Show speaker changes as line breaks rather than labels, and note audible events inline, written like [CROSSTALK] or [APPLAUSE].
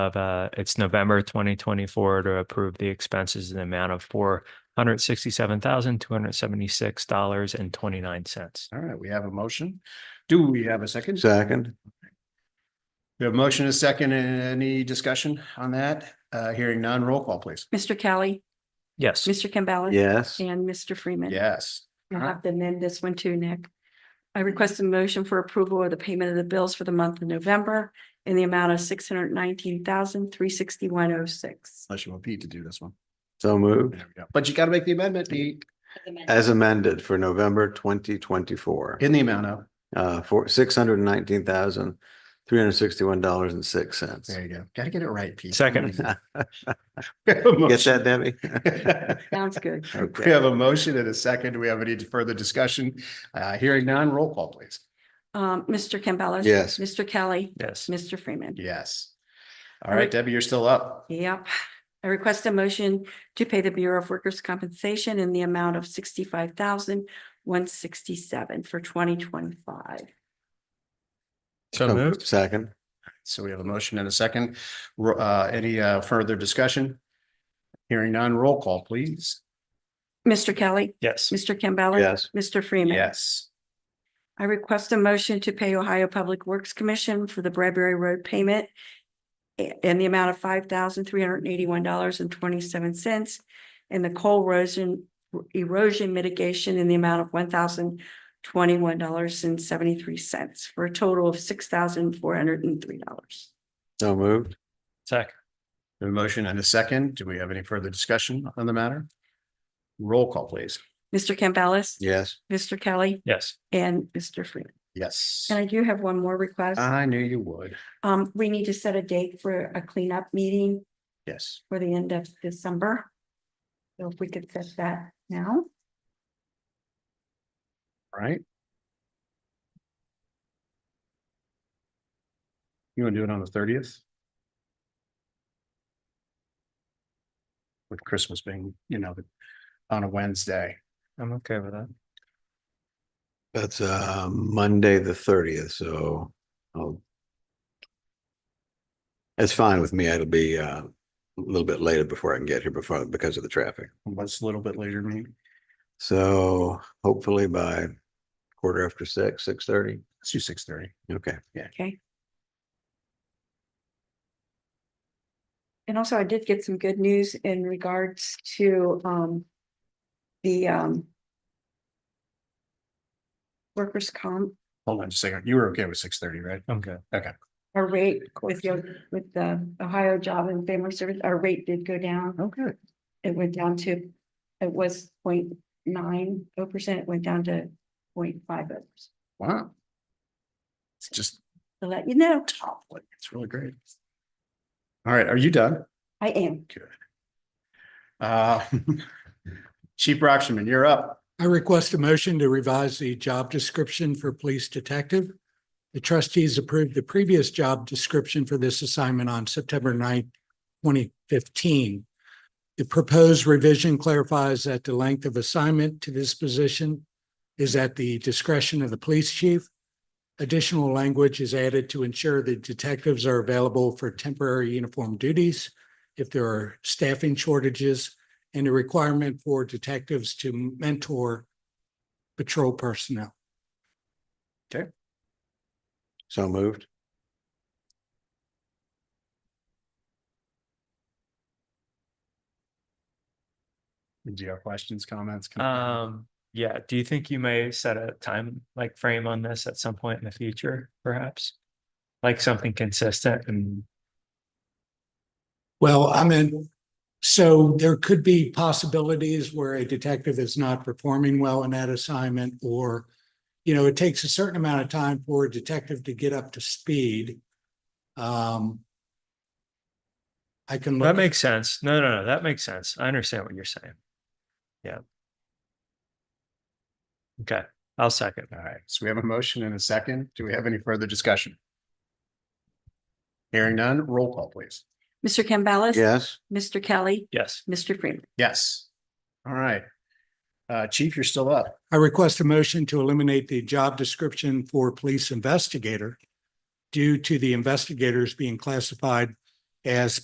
of, uh, it's November twenty twenty-four to approve the expenses in the amount of four hundred sixty-seven thousand, two hundred seventy-six dollars and twenty-nine cents.
All right, we have a motion. Do we have a second?
Second,
We have a motion, a second, and any discussion on that? Uh, hearing none, roll call, please.
Mr. Kelly,
Yes.
Mr. Campbell.
yes, uh-huh.
And Mr. Freeman.
Yes.
I'll have to amend this one too, Nick. I request a motion for approval of the payment of the bills for the month of November in the amount of six hundred nineteen thousand, three sixty-one oh six.
Unless you want Pete to do this one.
so moved,
There we go. But you gotta make the amendment, Pete,
as amended for November twenty twenty-four.
in the amount of,
Uh, for six hundred and nineteen thousand, three hundred and sixty-one dollars and six cents. [LAUGHS]
there you go. Gotta get it right, Pete. [LAUGHS]
Second.
Get
Get that,
[LAUGHS]
Debbie? [LAUGHS]
Sounds good.
We have a motion and a second. Do we have any further discussion? Uh, hearing none, roll call, please.
Um, Mr. Campbell.
Yes.
Mr. Kelly,
Yes.
Mr. Freeman.
Yes. All right, Debbie, you're still up.
Yep. I request a motion to pay the Bureau of Workers' Compensation in the amount of sixty-five thousand, one sixty-seven for twenty twenty-five.
So moved.
Second,
So we have a motion and a second. Ro- Uh, any, uh, further discussion? Hearing none, roll call, please.
Mr. Kelly,
Yes.
Mr. Campbell.
yes,
Mr. Freeman.
Yes.
I request a motion to pay Ohio Public Works Commission for the Bradbury Road payment i- in the amount of five thousand three hundred and eighty-one dollars and twenty-seven cents and the coal erosion erosion mitigation in the amount of one thousand twenty-one dollars and seventy-three cents for a total of six thousand four hundred and three dollars.
so moved,
Second.
A motion and a second. Do we have any further discussion on the matter? Roll call, please.
Mr. Campbell,
yes,
Mr. Kelly,
Yes.
and Mr. Freeman.
Yes.
And I do have one more request.
I knew you would.
Um, we need to set a date for a cleanup meeting
Yes.
for the end of December. So if we could set that now,
All right. You want to do it on the thirtieth? With Christmas being, you know, the- on a Wednesday.
I'm okay with that.
that's, uh, Monday, the thirtieth, so. I'll- It's fine with me, it'll be, uh, a little bit later before I can get here before, because of the traffic.
What's a little bit later, me?
So hopefully by quarter after six, six thirty,
Let's do six thirty.
okay.
okay? And also I did get some good news in regards to um the um workers' comp,
Hold on just a second. You were okay with six thirty, right?
I'm good.
our rate with your, with the Ohio Job and Family Service, our rate did go down.
Okay.
It went down to, it was 0.90 percent, it went down to 0.50. percent.
Wow. It's just
To let you know,
top, like, it's really great. All right, are you done?
I am.
Uh, [LAUGHS] Chief Rocksherman, you're up.
I request a motion to revise the job description for police detective. The trustees approved the previous job description for this assignment on September 9th, twenty fifteen. The proposed revision clarifies that the length of assignment to this position is at the discretion of the police chief. Additional language is added to ensure that detectives are available for temporary uniform duties if there are staffing shortages and a requirement for detectives to mentor patrol personnel.
So moved,
Do you have questions, comments?
Um, yeah, do you think you may set a time like frame on this at some point in the future, perhaps? Like something consistent and,
Well, I mean, so there could be possibilities where a detective is not performing well in that assignment or, you know, it takes a certain amount of time for a detective to get up to speed. Um, I can. look
that
at-
makes sense. No, no, no, that makes sense. I understand what you're saying. Yeah. Okay, I'll second.
All right, so we have a motion and a second. Do we have any further discussion? Hearing none, roll call, please.
Mr. Campbell.
yes,
Mr. Kelly,
Yes.
Mr. Freeman.
Yes. All right. Uh, Chief, you're still up.
I request a motion to eliminate the job description for police investigator due to the investigators being classified as